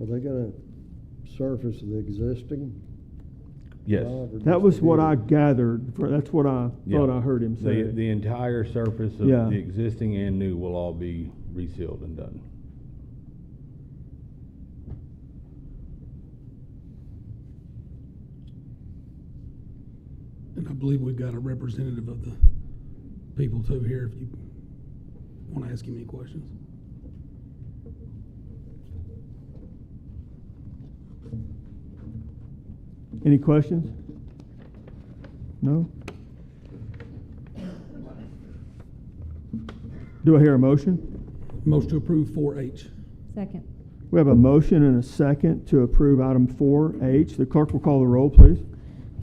Are they gonna surface the existing? Yes. drive or That just was the what new? I gathered, for, that's what I Yeah. thought I heard him The, the say. entire surface of Yeah. the existing and new will all be resealed and done. And I believe we've got a representative of the people too here if you want to ask him any questions. Any questions? No? Do I hear a motion? Motion to approve 4H. Second. We have a motion and a second to approve item four H. The clerk will call the roll, please.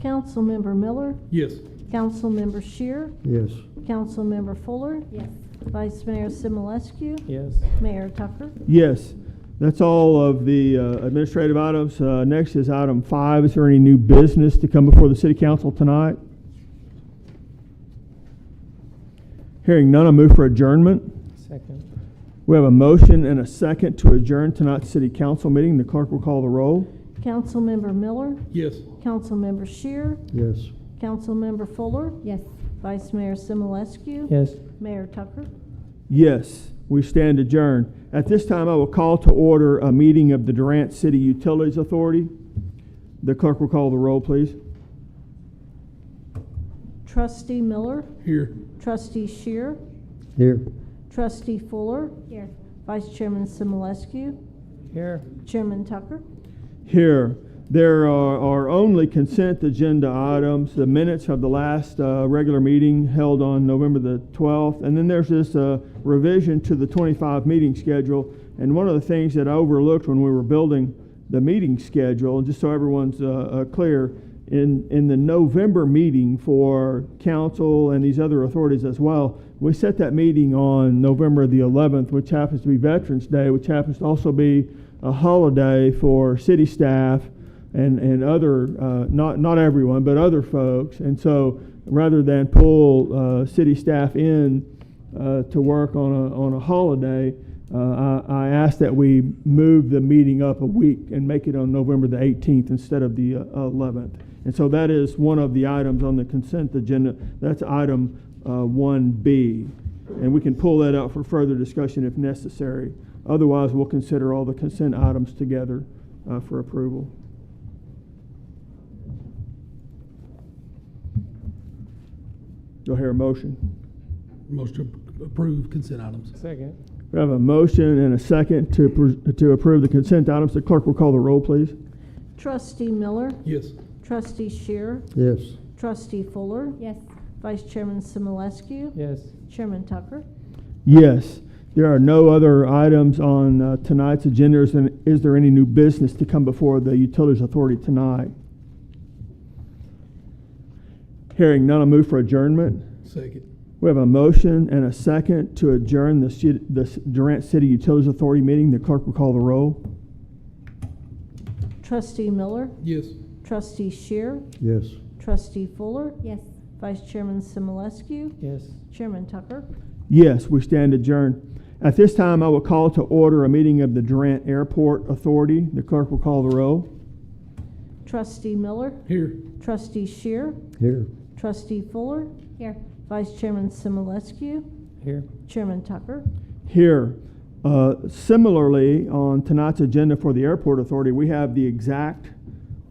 Councilmember Miller, Yes. Councilmember Shear, Yes, Councilmember Fuller, Yes. Vice Mayor Simulescu, Yes. Mayor Tucker. Yes, that's all of the uh, administrative items. Uh, Next is item five. Is there any new business to come before the city council tonight? Hearing none, I move for adjournment. Second. We have a motion and a second to adjourn tonight's city council meeting. The clerk will call the roll. Councilmember Miller, Yes. Councilmember Shear, yes. Councilmember Fuller, Yes. Vice Mayor Simulescu, Yes. Mayor Tucker. Yes, we stand adjourned. At this time, I will call to order a meeting of the Durant City Utilities Authority. The clerk will call the roll, please. Trustee Miller, Here. Trustee Shear, Here. Trustee Fuller, Here. Vice Chairman Simulescu, Here. Chairman Tucker. Here, there are are only consent agenda items, the minutes of the last uh, regular meeting held on November the 12th, and then there's this uh, revision to the 25 meeting schedule. And one of the things that I overlooked when we were building the meeting schedule, and just so everyone's uh, uh, clear, in, in the November meeting for council and these other authorities as well, we set that meeting on November the 11th, which happens to be Veterans Day, which happens to also be a holiday for city staff and, and other, uh, not, not everyone, but other folks. And so rather than pull uh, city staff in uh, to work on a, on a holiday, uh, I, I ask that we move the meeting up a week and make it on November the 18th instead of the uh, 11th. And so that is one of the items on the consent agenda. That's item uh, 1B. And we can pull that out for further discussion if necessary. Otherwise, we'll consider all the consent items together uh, for approval. Do I hear a motion? Motion to approve consent items. Second. We have a motion and a second to, pr- to approve the consent items. The clerk will call the roll, please. Trustee Miller, Yes. Trustee Shear, Yes. Trustee Fuller, Yes. Vice Chairman Simulescu, Yes. Chairman Tucker. Yes, there are no other items on uh, tonight's agenda. Is there- Is there any new business to come before the Utilities Authority tonight? Hearing none, I move for adjournment. Second. We have a motion and a second to adjourn the ci- the Durant City Utilities Authority meeting. The clerk will call the roll. Trustee Miller, Yes. Trustee Shear, Yes. Trustee Fuller, Yes. Vice Chairman Simulescu, Yes. Chairman Tucker. Yes, we stand adjourned. At this time, I will call to order a meeting of the Durant Airport Authority. The clerk will call the roll. Trustee Miller, Here. Trustee Shear, Here. Trustee Fuller, Here. Vice Chairman Simulescu, Here. Chairman Tucker. Here, uh, similarly, on tonight's agenda for the Airport Authority, we have the exact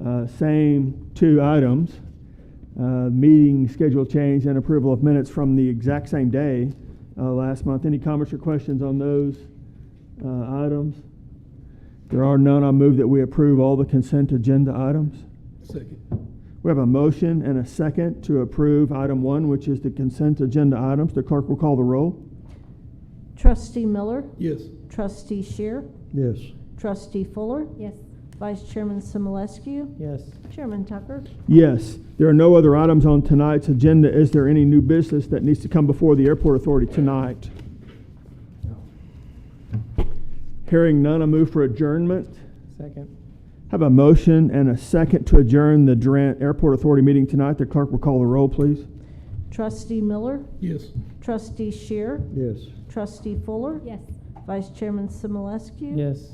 uh, same two items, uh, meeting schedule change and approval of minutes from the exact same day uh, last month. Any comments or questions on those uh, items? There are none. I move that we approve all the consent agenda items. Second. We have a motion and a second to approve item one, which is the consent agenda items. The clerk will call the roll. Trustee Miller, Yes. Trustee Shear, Yes. Trustee Fuller, Yes. Vice Chairman Simulescu, Yes. Chairman Tucker. Yes, there are no other items on tonight's agenda. Is there any new business that needs to come before the airport authority tonight? Hearing none, I move for adjournment. Second. Have a motion and a second to adjourn the Durant Airport Authority meeting tonight. The clerk will call the roll, please. Trustee Miller, Yes. Trustee Shear, Yes. Trustee Fuller, Yes. Vice Chairman Simulescu, Yes.